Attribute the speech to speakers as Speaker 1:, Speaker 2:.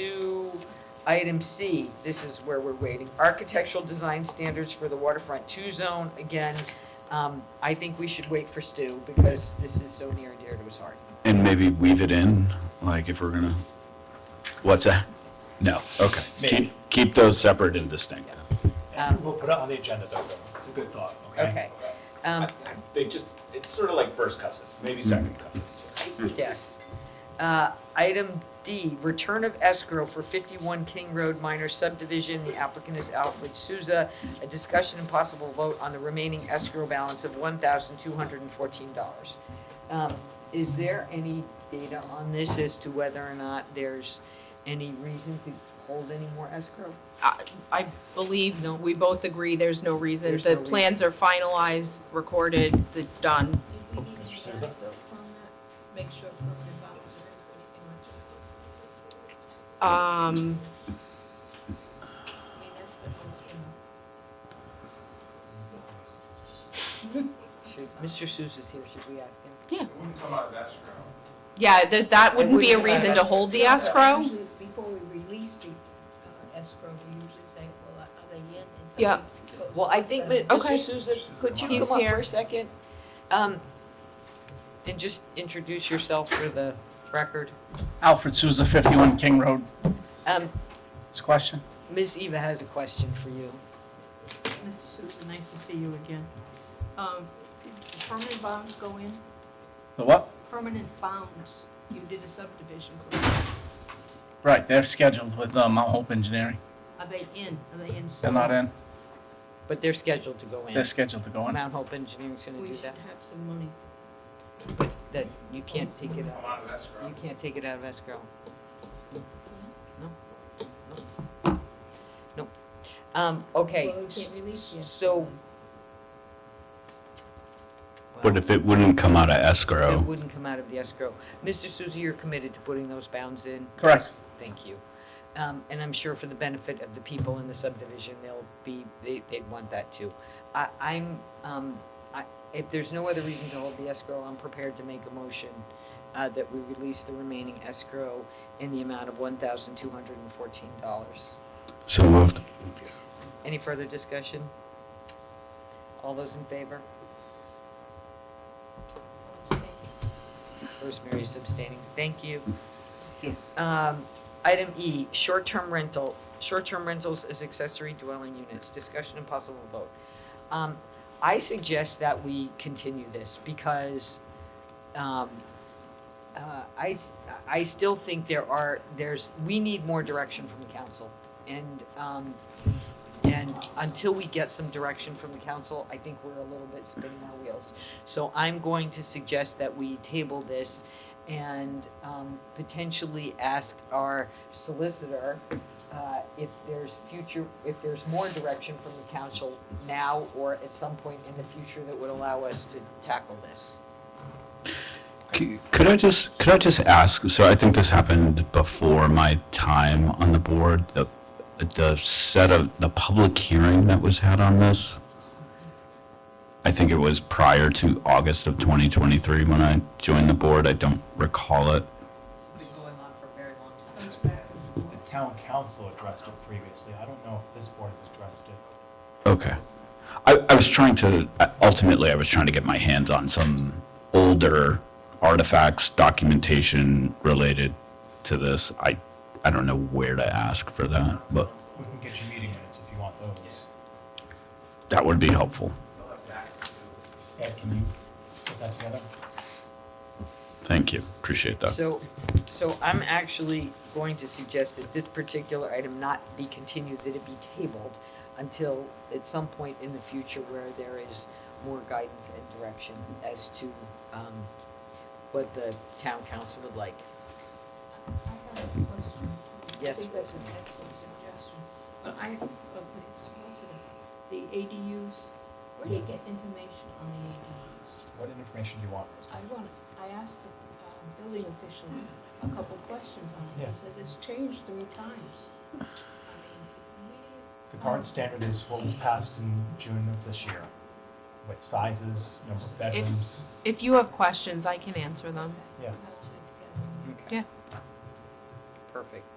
Speaker 1: to item C, this is where we're waiting, architectural design standards for the waterfront two zone, again, um, I think we should wait for Stu, because this is so near and dear to his heart.
Speaker 2: And maybe weave it in, like if we're gonna, what's that? No, okay.
Speaker 3: Maybe.
Speaker 2: Keep, keep those separate and distinct.
Speaker 1: Um,
Speaker 3: We'll put it on the agenda though, though. It's a good thought, okay?
Speaker 1: Okay. Um,
Speaker 3: They just, it's sort of like first cousins, maybe second cousins.
Speaker 1: yes. Uh, item D, return of escrow for fifty-one King Road minor subdivision, the applicant is Alfred Souza. A discussion and possible vote on the remaining escrow balance of one thousand two hundred and fourteen dollars. Um, Is there any data on this as to whether or not there's any reason to hold any more escrow?
Speaker 4: I- I believe
Speaker 1: No.
Speaker 4: we both agree there's no reason.
Speaker 1: There's
Speaker 4: The
Speaker 1: no reason.
Speaker 4: plans are finalized, recorded, it's done.
Speaker 5: Did we need
Speaker 3: Mr.
Speaker 5: to
Speaker 3: Sousa?
Speaker 5: pass books on that? Make sure permanent bounds or anything like that?
Speaker 4: Um,
Speaker 5: I mean, that's been always been.
Speaker 1: Should, Mr. Souza's here, should we ask him?
Speaker 6: It wouldn't come out of escrow.
Speaker 4: yeah, there's, that wouldn't be a
Speaker 1: wouldn't-
Speaker 4: reason to hold the
Speaker 5: No, but
Speaker 4: escrow.
Speaker 5: usually Before we release the uh, escrow, we usually say, well, are they in? And something
Speaker 4: Yeah.
Speaker 5: goes
Speaker 1: Well, I
Speaker 5: with
Speaker 1: think,
Speaker 5: them.
Speaker 1: that- Mr.
Speaker 4: Okay.
Speaker 1: Souza, could you
Speaker 4: He's
Speaker 1: come up for
Speaker 4: here.
Speaker 1: a second? Um, And just introduce yourself for the record.
Speaker 7: Alfred Souza, 51 King Road.
Speaker 1: Um,
Speaker 7: It's a question?
Speaker 1: Ms. Eva has a question for you.
Speaker 5: Mr. Sousa, nice to see you again. Um, did Permanent bounds go in?
Speaker 7: The what?
Speaker 5: Permanent bounds, you did a subdivision, correct?
Speaker 7: Right, they're scheduled with uh, Mount Hope Engineering.
Speaker 5: Are they in? Are they in?
Speaker 7: They're not in.
Speaker 1: But they're scheduled to go in.
Speaker 7: They're scheduled to go in.
Speaker 1: Mount Hope Engineering's gonna
Speaker 5: We
Speaker 1: do
Speaker 5: should
Speaker 1: that,
Speaker 5: have some money.
Speaker 1: but that, you can't take it
Speaker 6: Come
Speaker 1: out,
Speaker 6: out of escrow.
Speaker 1: you can't take it out of escrow. No, no, no. Um, okay.
Speaker 5: Well, we can't release yet.
Speaker 1: So.
Speaker 2: But if it wouldn't come out of
Speaker 1: It
Speaker 2: escrow,
Speaker 1: wouldn't come out of the escrow. Mr. Susie, you're committed to putting those bounds in?
Speaker 7: Correct.
Speaker 1: Thank you. Um, and I'm sure for the benefit of the people in the subdivision, they'll be, they, they'd want that too. I, I'm, um, I, if there's no other reason to hold the escrow, I'm prepared to make a motion, uh, that we release the remaining escrow in the amount of one thousand two hundred and fourteen dollars.
Speaker 2: so moved.
Speaker 1: Any further discussion? All those in favor? Rosemary is abstaining. Thank you. Um, Item E, short-term rental, short-term rentals as accessory dwelling units, discussion and possible vote. Um, I suggest that we continue this because um, uh, I, s- I still think there are, there's, we need more direction from the council. And, um, and until we get some direction from the council, I think we're a little bit spinning our wheels. So I'm going to suggest that we table this and um, potentially ask our solicitor uh, if there's future, if there's more direction from the council now or at some point in the future that would allow us to tackle this.
Speaker 2: C- Could I just, could I just ask, so I think this happened before my time on the board, the, the set of, the public hearing that was had on this? I think it was prior to August of 2023 when I joined the board. I don't recall it.
Speaker 1: It's been going on for a very long time.
Speaker 3: The town council addressed it previously. I don't know if this board has addressed it.
Speaker 2: Okay. I, I was trying to, ultimately, I was trying to get my hands on some older artifacts, documentation related to this. I, I don't know where to ask for that, but
Speaker 3: We can get your meeting minutes if you want those.
Speaker 2: that would be helpful.
Speaker 3: Ed, can you put that together?
Speaker 2: Thank you. Appreciate that.
Speaker 1: So, so I'm actually going to suggest that this particular item not be continued, that it be tabled until at some point in the future where there is more guidance and direction as to, um, what the town council would like.
Speaker 5: I have a question.
Speaker 1: Yes.
Speaker 5: I think that's an excellent suggestion. But I, but the solicitor, the ADUs, where do you get information on the ADUs?
Speaker 3: What information do you want?
Speaker 5: I want, I asked the um, building official a couple questions on it.
Speaker 3: Yeah.
Speaker 5: He says it's changed three times. I mean,
Speaker 3: The current standard is what was passed in June of this year with sizes, number of bedrooms.
Speaker 4: If you have questions, I can answer them.
Speaker 3: Yeah.
Speaker 5: we have to get together.
Speaker 1: Okay.
Speaker 4: Yeah.
Speaker 1: Perfect.